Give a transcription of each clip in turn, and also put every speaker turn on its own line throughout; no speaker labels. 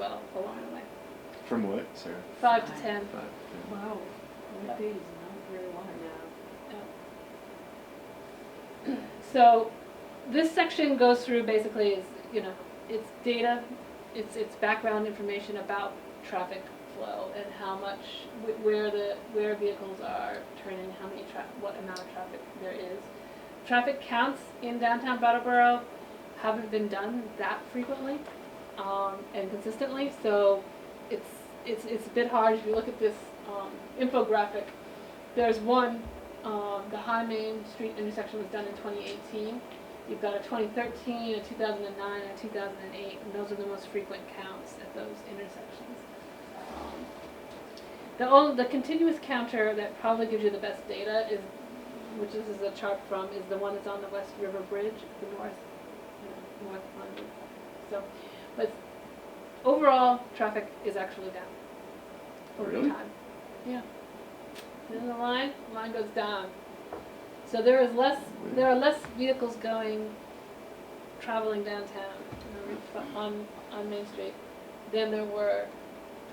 a long way.
From what, Sarah?
Five to ten.
Five. yeah.
Wow, that is not very long.
So this section goes through basically is, you know, it's data, it's, it's background information about traffic flow and how much, wh- where the, where vehicles are turning, how many tra, what amount of traffic there is. Traffic counts in downtown Brattleboro haven't been done that frequently, um, and consistently, so it's, it's, it's a bit hard if you look at this, um, infographic. There's one um, the High Main Street intersection was done in 2018. You've got a 2013, a 2009, and a 2008, and those are the most frequent counts at those intersections. Um, The only, the continuous counter that probably gives you the best data is, which this is a chart from, is the one that's on the West River Bridge, the north, you know, north one. So, but overall, traffic is actually down over
Really?
time. Yeah. Then the line, line goes down. So there is less, there are less vehicles going, traveling downtown you know, fr- on, on Main Street than there were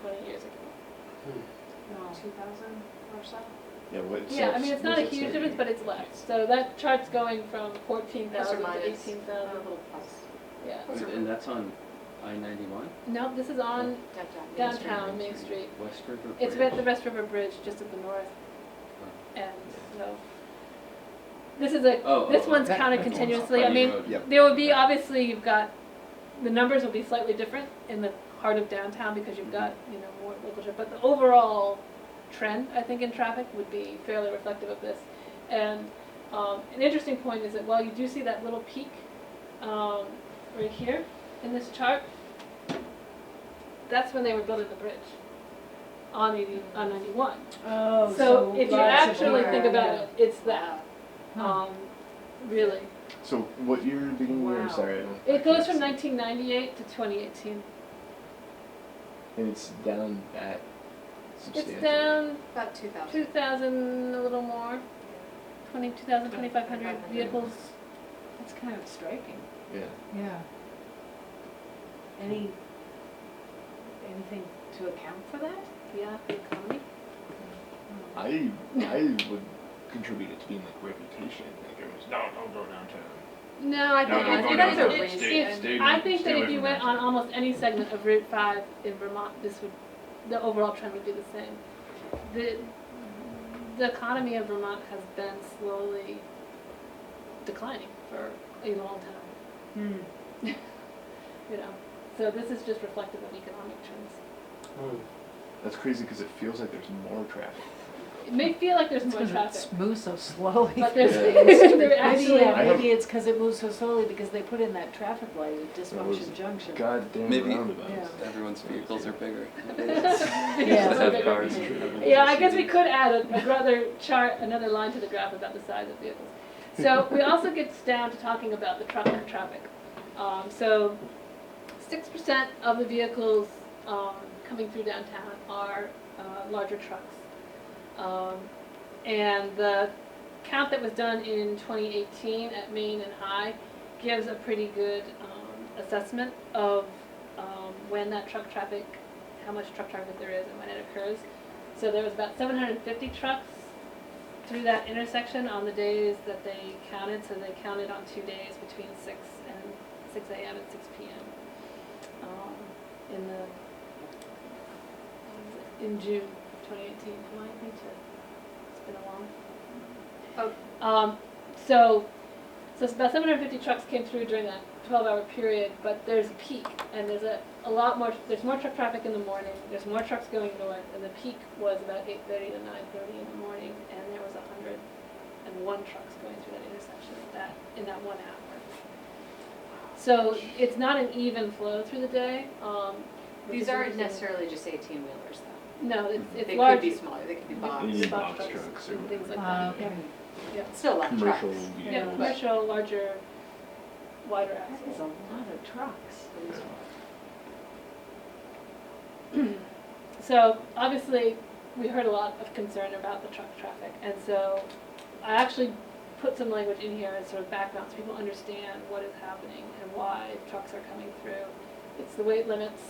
twenty years ago.
No.
two thousand or so.
Yeah, what?
Yeah, I
so-
mean, it's not a
what's it
huge
say?
difference, but it's less. So that chart's going from fourteen thousand to
minus.
eighteen thousand,
Um,
yeah.
Those
And
are-
and that's on I ninety-one?
No, this is on, Downtown Main Street.
West River Bridge? Oh,
it's at the West River Bridge, just at the north end, so. This is
Oh,
a,
oh,
this
oh.
one's
That-
counted
that's on
continuously. I
Putney
mean,
Road.
Yep.
There will be, obviously, you've got, the numbers will be slightly different in the heart of downtown because you've got, you know, more local traffic. But the overall trend, I think, in traffic would be fairly reflective of this. And um, an interesting point is that while you do see that little peak um, right here in this chart, that's when they were building the bridge on 80, on 91.
Oh,
So if you
lots of
actually
people
think
are,
about it, it's that,
Hmm.
um, really.
So what year did you
Wow.
I'm sorry.
It goes from 1998 to 2018.
And it's down that substantially.
It's down
About two thousand.
2,000, a little more, 20, 2,000, 2,500 vehicles.
That's kind of striking.
Yeah.
Yeah. Any, anything to account for that?
Yeah, the economy.
I I would contribute it to being like reputation. Like it was no, don't go downtown.
No, I
No,
think
no,
it's,
go
it's,
downtown.
it's-
Stay-
it's-
stay-
I think that
stay
if
away
you
from
went on
downtown.
almost any segment of Route 5 in Vermont, this would, the overall trend would be the same. The, the economy of Vermont has been slowly declining for a long time,
Hmm.
you know. So this is just reflective of economic trends.
That's crazy because it feels like there's more traffic.
It may feel like there's more
Because
traffic,
it moves so slowly.
but there's,
Yeah.
there
Maybe,
actually,
yeah,
I have-
maybe it's because it moves so slowly because they put in that traffic light at
That was-
Dysfunction Junction.
Goddamn
Maybe-
roundabouts.
Yeah.
Everyone's vehicles are bigger.
Yeah.
Just have
Yeah,
cars.
I guess we could add a- another chart, another line to the graph about the size of vehicles. So we also get down to talking about the truck and traffic. Um, so six percent of the vehicles, um, coming through downtown are, uh, larger trucks. Um, and the count that was done in twenty eighteen at Maine and High gives a pretty good, um, assessment of, um, when that truck traffic, how much truck traffic there is and when it occurs. So there was about seven hundred and fifty trucks through that intersection on the days that they counted, so they counted on two days between six and six AM and six PM. um, In the, in June twenty eighteen, am I, me too? It's been a long.
Oh.
Um, so, so it's about seven hundred and fifty trucks came through during that twelve hour period, but there's a peak and there's a, a lot more, there's more truck traffic in the morning, there's more trucks going north, and the peak was about eight thirty to nine thirty in the morning, and there was a hundred and one trucks going through that intersection at that, in that one hour. So it's not an even flow through the day, um. which
These
is
aren't
uh,
interesting.
necessarily just eighteen wheelers though.
No, it's, it's
They
large.
could be smaller, they could be
You
boxed,
need
box
box
trucks
trucks
and
or
things like
Uh,
that.
okay.
still a lot of trucks.
commercial
Yeah,
vehicles.
commercial, larger, wider
That
axles.
is a lot of trucks.
So obviously, we heard a lot of concern about the truck traffic, and so I actually put some language in here as sort of background, so people understand what is happening and why trucks are coming through. It's the weight limits,